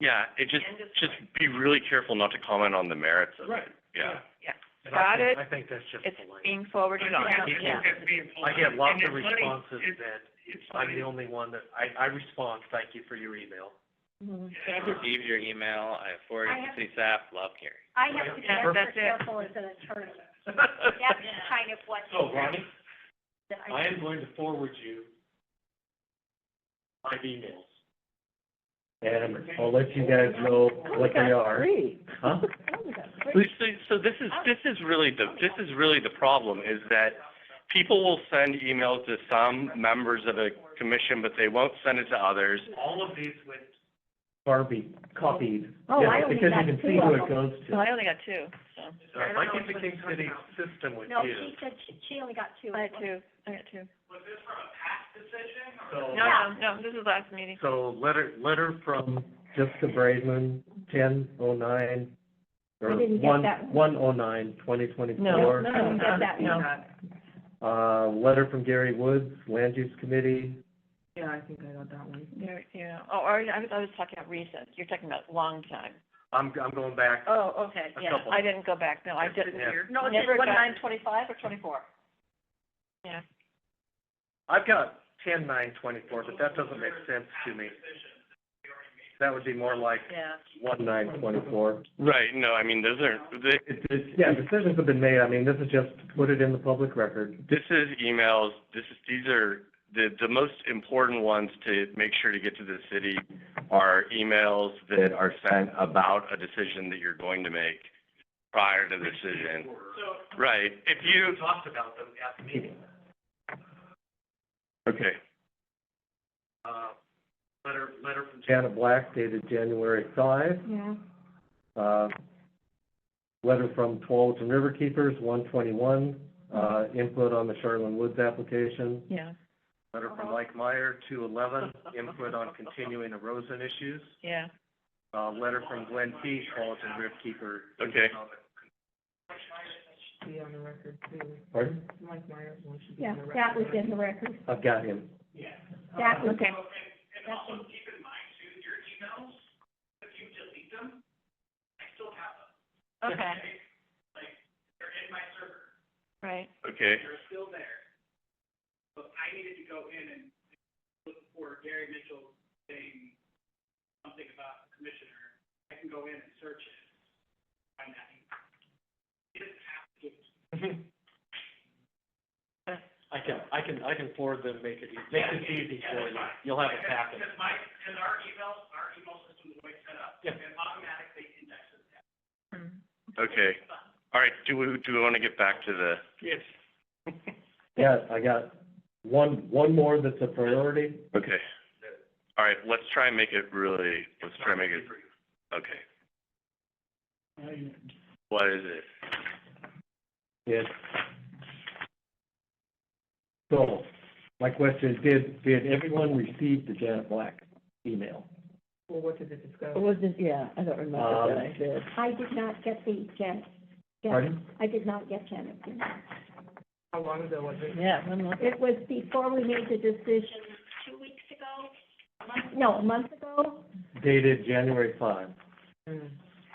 Yeah, it just, End of just be really careful not to comment on the merits of it, Right. yeah. And I Got think- it. I think that's just It's polite. being forwarded on. Yeah. Yeah. I get lots of responses that I'm the only one that, I, I respond, thank you for your email. Mhm. I received your email, I forwarded it to city staff, love Gary. I have to be Yeah, extra that's it. careful as an attorney. That's So, kind of what. Oh, Ronnie, that I- I am going to forward you my emails. And I'll let you guys know what they are. Huh? Oh, So, so this is, this is really the, this is really the problem, is that people will send emails to some members of the commission, but they won't send it to others. All of these went. Barbie copied. Oh, I only got Because you can two see who of it them. goes So to. I only got two, so, So Uh, if I get the King City system with No, you, she said she, she only got two. I got two, I got two. so, No, no, no, this is last meeting. so letter, letter from, Jessica Braidman, ten oh nine, or I didn't get one, that one. one oh nine, twenty No, twenty-four. I didn't get that No. one. Uh, letter from Gary Woods, Land Use Committee, There- Yeah, oh, or, I was, I was talking about recent, you're talking about long time. I'm, I'm going back Oh, okay, A yeah, couple. I didn't go back, no, I didn't. Yeah. No, it's just one nine twenty-five or twenty-four? Yeah. I've got ten nine twenty-four, but that doesn't make sense to me. That would be more like Yeah. one nine twenty-four. Right, no, I mean, those are, th- It, it, yeah, decisions have been made. I mean, this is just to put it in the public record. this is emails, this is, these are, the, the most important ones to make sure to get to the city are emails that are sent about a decision that you're going to make prior to the decision. Right, if you, You talked about them at the meeting, okay. uh, letter, letter from Jan. Janet Black dated January five, Mm-hmm. Yeah. uh, letter from Tualatin Riverkeepers, one twenty-one, uh, input on the Charlene Woods application. Yeah, Letter from Mike Meyer, two eleven, input on continuing erosion issues. yeah. Uh, letter from Glenn P., Paulton Rift Keeper. Okay. Pardon? Yeah, that was in the record. I've got him. That was. Okay. that's in- Okay. Right, Okay. Mm-hmm. I can, I can, I can forward them, make it, make it easy for you. You'll have a packet. Mm. Okay. All right, do we, do we want to get back to the? Yes. Yeah, I got one, one more that's a priority. Okay. All right, let's try and make it really, let's try and make it, okay. What is it? Yes. So, my question is, did, did everyone receive the Janet Black email? It wasn't, yeah, I don't Uh, remember that I did. I did not get the Janet. Janet- Um, Pardon? I did not get Janet. Yeah, when was it? It was before we made the decision, two weeks ago, a month, no, a month ago. Dated January five. So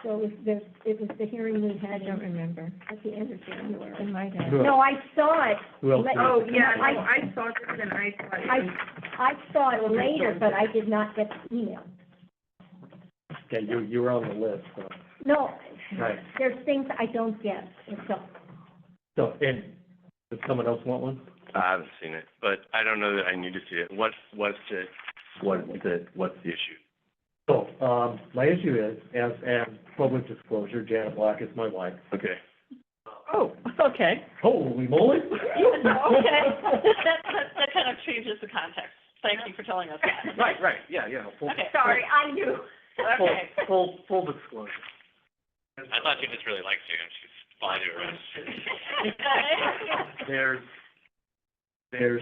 it was the, it was the hearing we I had don't in- remember. at the end of January. It might have. Who No, else? I saw it. Who else? Let- did it? I saw this and I I, I saw it later, but I did not get the email. Okay, you, you were on the list, so. No, Right. there's things I don't get, and so, So, and, does someone else want one? I haven't seen it, but I don't know that I need to see it. What, what's it, what's the, what's the issue? So, um, my issue is, as, as public disclosure, Janet Black is my wife. Okay. Oh, okay. Holy moly! Okay, that, that, that kind of changes the context. Thank you for telling us that. Right, right, yeah, yeah. full- Okay. sorry, I knew. Full, Okay. full, full disclosure. I thought you just really liked you, and she's fine to her. There's, There's,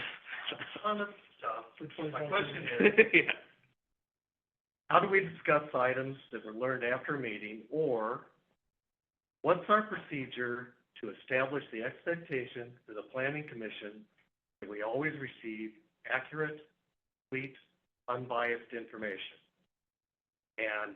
my question is, how do we discuss items that were learned after a meeting? Or what's our procedure to establish the expectation to the planning commission that we always receive accurate, complete, unbiased information? And